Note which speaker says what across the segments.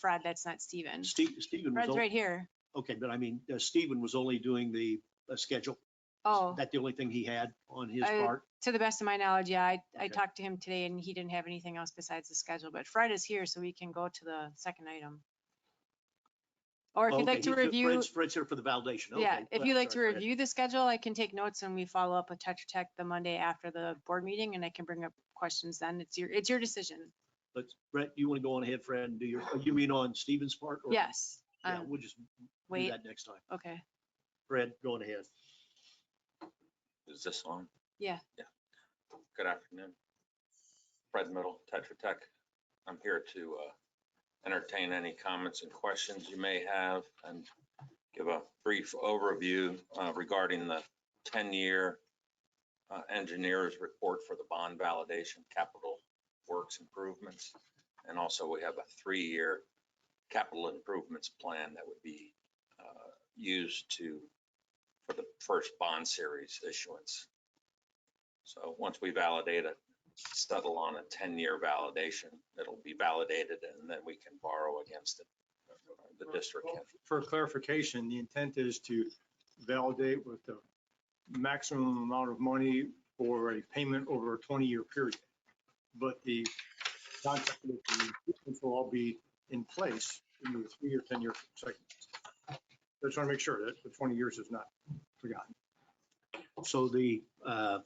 Speaker 1: Fred, that's not Steven.
Speaker 2: Steve, Stephen was,
Speaker 1: Fred's
Speaker 2: on-
Speaker 1: right here.
Speaker 2: okay, but I mean, uh, Stephen was only doing the uh, schedule.
Speaker 1: Oh,
Speaker 2: That the only thing he had on his
Speaker 1: I-
Speaker 2: part?
Speaker 1: to the best of my knowledge, yeah, I, I
Speaker 2: Okay.
Speaker 1: talked to him today and he didn't have anything else besides the schedule, but Fred is here, so we can go to the second item. Or if
Speaker 2: Okay,
Speaker 1: you'd like to
Speaker 2: he's-
Speaker 1: review,
Speaker 2: Fred's, Fred's here for the validation, okay.
Speaker 1: yeah, if
Speaker 2: Fred-
Speaker 1: you'd like to
Speaker 2: sorry, Fred.
Speaker 1: review the schedule, I can take notes and we follow up with Tetra Tech the Monday after the board meeting and I can bring up questions then. It's your, it's your decision.
Speaker 2: But Brett, you want to go on ahead, Fred, and do your, oh, you mean on Stephen's part? or-
Speaker 1: Yes.
Speaker 2: Yeah,
Speaker 1: um,
Speaker 2: we'll just do
Speaker 1: Wait,
Speaker 2: that next time.
Speaker 1: okay.
Speaker 2: Fred, go on ahead.
Speaker 3: Is this on?
Speaker 1: Yeah.
Speaker 3: Yeah. Good afternoon. Fred Middle, Tetra Tech. I'm here to uh, entertain any comments and questions you may have and give a brief overview uh, regarding the 10-year uh, engineer's report for the bond validation capital works improvements. And also, we have a three-year capital improvements plan that would be uh, used to for the first bond series issuance. So once we validate it, settle on a ten-year validation, it'll be validated and then we can borrow against it. The district can.
Speaker 4: For clarification, the intent is to validate with the maximum amount of money for a payment over a 20-year period. But the contract with the improvements will all be in place in the three or 10-year segments. Just want to make sure that the 20 years is not forgotten.
Speaker 2: So the uh,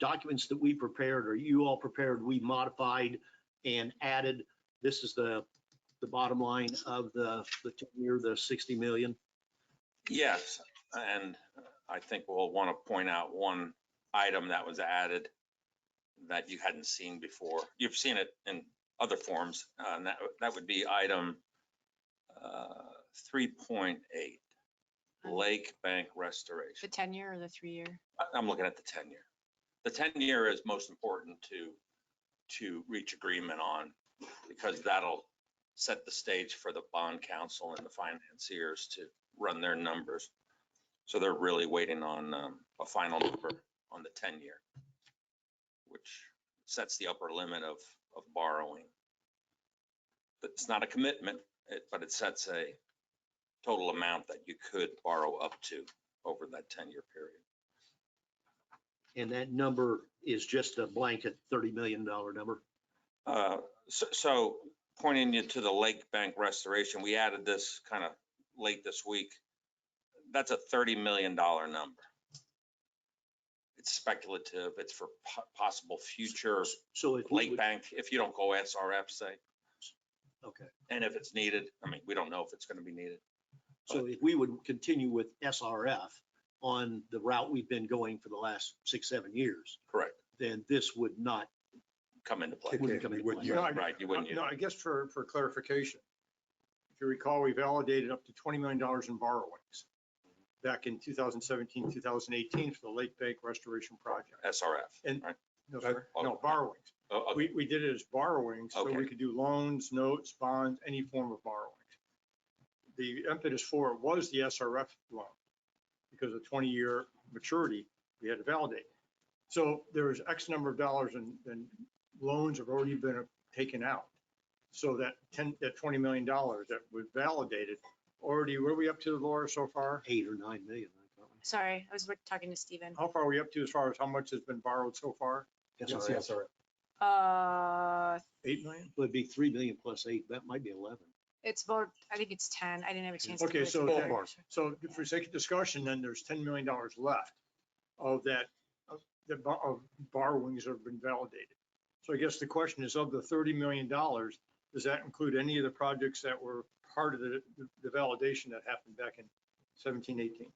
Speaker 2: documents that we prepared, or you all prepared, we modified and added. This is the, the bottom line of the, the 10-year, the 60 million.
Speaker 3: Yes, and I think we'll want to point out one item that was added that you hadn't seen before. You've seen it in other forms, uh, and that, that would be item uh, 3.8, Lake Bank Restoration.
Speaker 1: The ten-year or the three-year?
Speaker 3: I- I'm looking at the ten year. The ten year is most important to, to reach agreement on because that'll set the stage for the bond council and the financiers to run their numbers. So they're really waiting on um, a final number on the ten year, which sets the upper limit of, of borrowing. But It's not a commitment, it- but it sets a total amount that you could borrow up to over that ten year period.
Speaker 2: And that number is just a blanket $30 million number.
Speaker 3: Uh, So, so pointing you to the lake bank restoration, we added this kind of late this week. That's a $30 million number. It's speculative. It's for po- possible future
Speaker 2: So if. we
Speaker 3: lake
Speaker 2: would-
Speaker 3: bank, if you don't go SRF, say,
Speaker 2: Okay,
Speaker 3: and if it's needed. I mean, we don't know if it's going to be needed.
Speaker 2: so if we would continue with SRF on the route we've been going for the last six, seven years,
Speaker 3: Correct.
Speaker 2: then this would not,
Speaker 3: Come into play.
Speaker 2: It wouldn't come into play.
Speaker 4: No, I-
Speaker 3: Right, you wouldn't.
Speaker 4: No, I guess for, for clarification, if you recall, we validated up to $20 million in borrowings back in 2017, 2018 for the Lake Bank Restoration Project.
Speaker 3: SRF.
Speaker 4: No,
Speaker 5: That-
Speaker 4: sir. No,
Speaker 3: okay.
Speaker 4: borrowings.
Speaker 3: Oh, okay.
Speaker 4: We, we did it as borrowings, so
Speaker 3: Okay.
Speaker 4: we could do loans, notes, bonds, any form of borrowings. The impetus for it was the SRF loan because of 20-year maturity, we had to validate. So there was X number of dollars and, and loans have already been taken out. So that 10, that $20 million that was validated, already, where are we up to, Laura, so far?
Speaker 2: eight or nine million. I thought.
Speaker 1: Sorry, I was look- talking to Steven.
Speaker 4: How far are we up to as far as how much has been borrowed so far?
Speaker 2: SRF.
Speaker 1: Uh,
Speaker 4: 8 million?
Speaker 2: Would be three million plus eight, that might be eleven.
Speaker 1: It's about, I think it's ten. I didn't have a chance. to
Speaker 4: Okay,
Speaker 1: look.
Speaker 4: so
Speaker 1: Yeah.
Speaker 4: that- So for sake of discussion, then there's $10 million left of that, of the bo- of borrowings that have been validated. So I guess the question is, of the $30 million, does that include any of the projects that were part of the, the validation that happened back in 17, 18?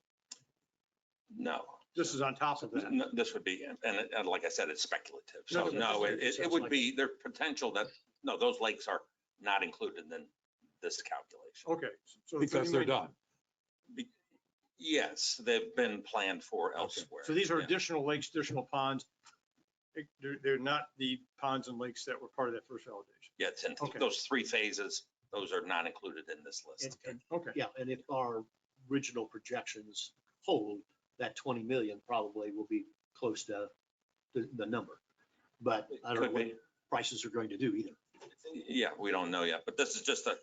Speaker 3: No.
Speaker 4: This is on top of that.
Speaker 3: No, This would be, and, and like I said, it's speculative.
Speaker 4: No,
Speaker 3: So
Speaker 4: no,
Speaker 3: no, it, it- it
Speaker 2: sounds
Speaker 3: would
Speaker 2: like-
Speaker 3: be, their potential that, no, those lakes are not included in this calculation.
Speaker 4: Okay. so
Speaker 5: Because
Speaker 4: $30
Speaker 5: they're
Speaker 4: million
Speaker 5: done.
Speaker 3: Yes, they've been planned for elsewhere.
Speaker 4: So these are
Speaker 3: Yeah.
Speaker 4: additional lakes, additional ponds. It- They're, they're not the ponds and lakes that were part of that first validation.
Speaker 3: Yeah, it's in, th-
Speaker 4: Okay.
Speaker 3: those three phases, those are not included in this
Speaker 2: And-
Speaker 3: list.
Speaker 2: and-
Speaker 4: Okay.
Speaker 2: Yeah, and if our original projections hold, that twenty million probably will be close to the, the number. But I don't know
Speaker 3: Could
Speaker 2: what
Speaker 3: be.
Speaker 2: prices are going to do either.
Speaker 3: Yeah, we don't know yet, but this is just a